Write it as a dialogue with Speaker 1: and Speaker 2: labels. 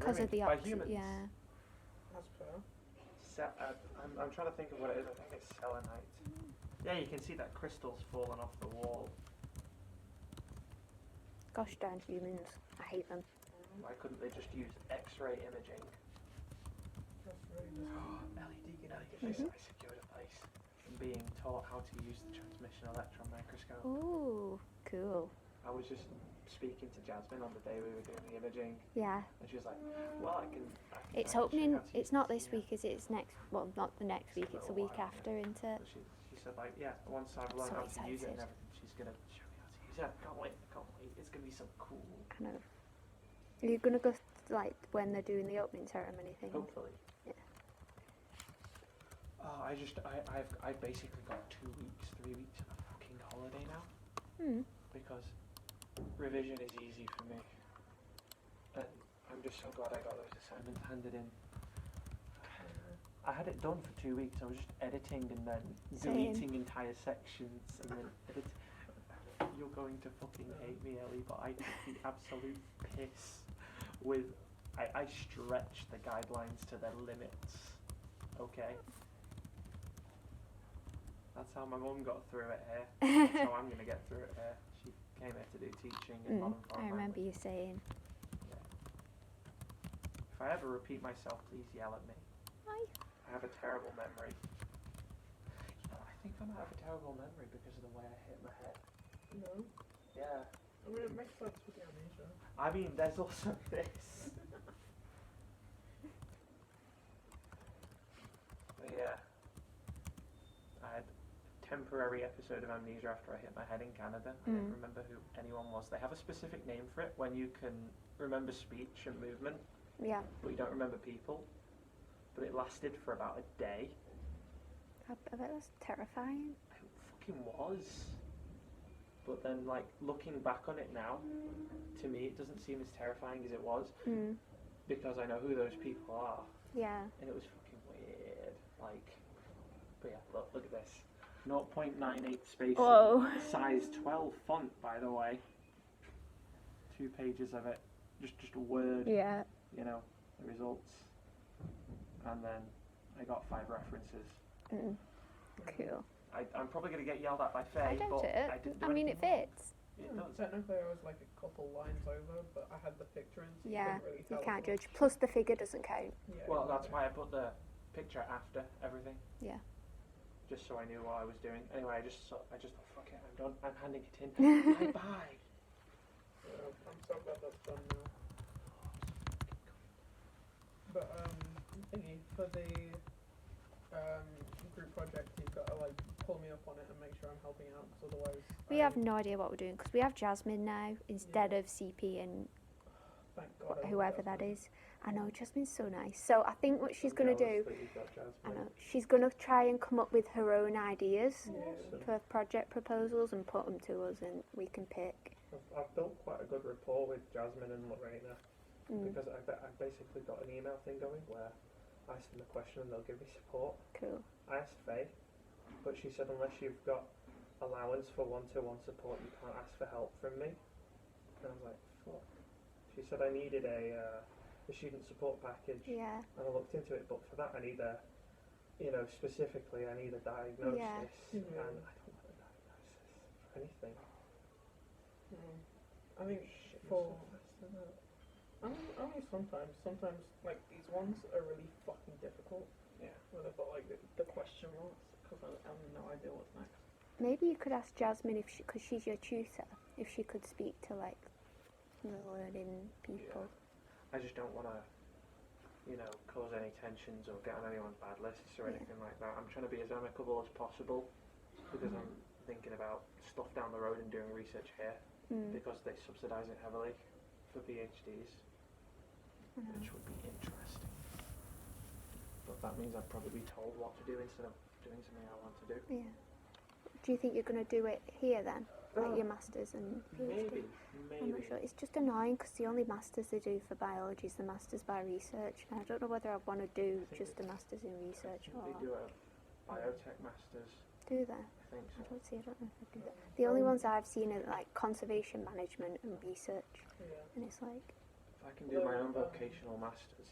Speaker 1: because of the
Speaker 2: by
Speaker 1: oxy-
Speaker 2: humans.
Speaker 1: Yeah.
Speaker 2: That's better. Sa- uh, I'm, I'm trying to think of what it is. I think it's selenite. Yeah, you can see that crystal's fallen off the wall.
Speaker 1: Gosh darn humans. I hate them.
Speaker 2: Why couldn't they just use X-ray imaging? LED analysis.
Speaker 1: Mm-hmm.
Speaker 2: I secured a place. From being taught how to use the transmission electron microscope.
Speaker 1: Mm. Ooh, cool.
Speaker 2: I was just speaking to Jasmine on the day we were doing the imaging,
Speaker 1: Yeah.
Speaker 2: and she was like, "Well, I can." I can try and
Speaker 1: It's
Speaker 2: show you
Speaker 1: opening.
Speaker 2: how to
Speaker 1: It's
Speaker 2: use
Speaker 1: not
Speaker 2: this,
Speaker 1: this
Speaker 2: yeah."
Speaker 1: week, is it? It's next. Well, not the next
Speaker 2: It's a
Speaker 1: week. It's the
Speaker 2: little
Speaker 1: week
Speaker 2: while, yeah.
Speaker 1: after, isn't it?
Speaker 2: But she, she said like, "Yeah, once I've learned
Speaker 1: so
Speaker 2: how to use it and
Speaker 1: excited.
Speaker 2: everything, she's gonna show me how to use it. I can't wait. I can't wait. It's gonna be so cool.
Speaker 1: I know. Are you gonna go like when they're doing the opening ceremony thing?
Speaker 2: Hopefully."
Speaker 1: Yeah.
Speaker 2: Oh, I just I I've I basically got two weeks, three weeks of a fucking holiday now.
Speaker 1: Hmm.
Speaker 2: because revision is easy for me. And I'm just so glad I got those assignments handed in. I had it done for two weeks. I was just editing and then
Speaker 1: Same.
Speaker 2: deleting entire sections and then edit. You're going to fucking hate me, Ellie, but I took the absolute piss with. I, I stretched the guidelines to their limits. Okay? That's how my mum got through it here. That's how I'm going to get through it here. She came here to do teaching in
Speaker 1: Mm,
Speaker 2: modern
Speaker 1: I
Speaker 2: foreign
Speaker 1: remember
Speaker 2: language.
Speaker 1: you saying.
Speaker 2: If I ever repeat myself, please yell at me.
Speaker 1: Hi.
Speaker 2: I have a terrible memory. You know, I think I might have a terrible memory because of the way I hit my head.
Speaker 3: No.
Speaker 2: Yeah.
Speaker 3: I mean, it makes sense with the amnesia.
Speaker 2: I mean, there's also this. but yeah. I had a temporary episode of amnesia after I hit my head in Canada. I didn't
Speaker 1: Mm.
Speaker 2: remember who anyone was. They have a specific name for it when you can remember speech and movement,
Speaker 1: Yeah.
Speaker 2: but you don't remember people. But it lasted for about a day.
Speaker 1: I, I bet that's terrifying.
Speaker 2: It fucking was. But then, like, looking back on it now, to me, it doesn't seem as terrifying as it was
Speaker 1: Mm.
Speaker 2: because I know who those people are.
Speaker 1: Yeah.
Speaker 2: And it was fucking weird. Like, but yeah, look, look at this. 0.98 spacing.
Speaker 1: Whoa.
Speaker 2: Size 12 font, by the way. Two pages of it. Just, just a word,
Speaker 1: Yeah.
Speaker 2: you know, the results. And then I got five references.
Speaker 1: Mm. Cool.
Speaker 2: I, I'm probably going to get yelled at by Faye,
Speaker 1: I doubt
Speaker 2: but
Speaker 1: it.
Speaker 2: I didn't do
Speaker 1: I mean, it
Speaker 2: anything
Speaker 1: fits.
Speaker 2: wrong. It does.
Speaker 3: Technically, I was like a couple lines over, but I had the picture in, so
Speaker 1: Yeah,
Speaker 3: you couldn't really
Speaker 1: You
Speaker 3: tell.
Speaker 1: can't judge. Plus, the figure doesn't count.
Speaker 3: Yeah,
Speaker 2: Well, that's
Speaker 3: exactly.
Speaker 2: why I put the picture after everything.
Speaker 1: Yeah.
Speaker 2: Just so I knew what I was doing. Anyway, I just saw- I just thought, fuck it, I'm done. I'm handing it in. bye bye.
Speaker 3: Yeah, I'm so glad that's done now. But um, thingy for the um group project, you've got to like pull me up on it and make sure I'm helping out, because otherwise um,
Speaker 1: We
Speaker 3: I-
Speaker 1: have no idea what we're doing because we have Jasmine now instead of CP and
Speaker 3: Thank God.
Speaker 1: wh-
Speaker 3: I
Speaker 1: whoever that is. I know Jasmine's so nice. So I think what she's
Speaker 2: I'm
Speaker 1: gonna
Speaker 2: jealous
Speaker 1: do,
Speaker 2: that you've got Jasmine.
Speaker 1: I know she's gonna try and come up with her own ideas
Speaker 3: Yeah.
Speaker 1: for project proposals and put them to us, and we can pick.
Speaker 2: I've, I've built quite a good rapport with Jasmine and Lorena
Speaker 1: Mm,
Speaker 2: because I've, I've basically got an email thing going where I ask them a question and they'll give me support.
Speaker 1: cool.
Speaker 2: I asked Faye, but she said unless you've got allowance for one-to-one support, you can't ask for help from me. And I was like, fuck. She said I needed a, uh, a student support package,
Speaker 1: Yeah.
Speaker 2: and I looked into it, but for that I need a, you know, specifically I need a diagnosis,
Speaker 3: Yeah.
Speaker 2: and I don't want a diagnosis for anything.
Speaker 3: Mm. I think
Speaker 2: Shit
Speaker 3: for
Speaker 2: myself.
Speaker 3: only, only sometimes. Sometimes like these ones are really fucking difficult.
Speaker 2: Yeah.
Speaker 3: Where they've got like the, the question marks because I, I have no idea what's next.
Speaker 1: Maybe you could ask Jasmine if she, because she's your tutor, if she could speak to like the learning people.
Speaker 2: I just don't want to, you know, cause any tensions or get on anyone's bad lists or
Speaker 1: Yeah.
Speaker 2: anything like that. I'm trying to be as amicable as possible because I'm thinking about stuff down the road and doing research here
Speaker 1: Mm,
Speaker 2: because they subsidise it heavily for PhDs,
Speaker 1: I know.
Speaker 2: which would be interesting. But that means I'd probably be told what to do instead of doing something I want to do.
Speaker 1: Yeah. Do you think you're gonna do it here then, like your masters and? PhD?
Speaker 2: maybe,
Speaker 1: I'm not
Speaker 2: maybe.
Speaker 1: sure. It's just annoying because the only masters they do for biology is the masters by research, and I don't know whether I want to do
Speaker 2: think
Speaker 1: just a masters in research
Speaker 2: They
Speaker 1: or
Speaker 2: do a biotech masters,
Speaker 1: do that.
Speaker 2: I think
Speaker 1: I
Speaker 2: so.
Speaker 1: don't see. I don't know if I do that.
Speaker 3: Um,
Speaker 1: The only ones I've seen are like conservation management and research,
Speaker 3: Yeah.
Speaker 1: and it's like
Speaker 2: I can do my own vocational masters.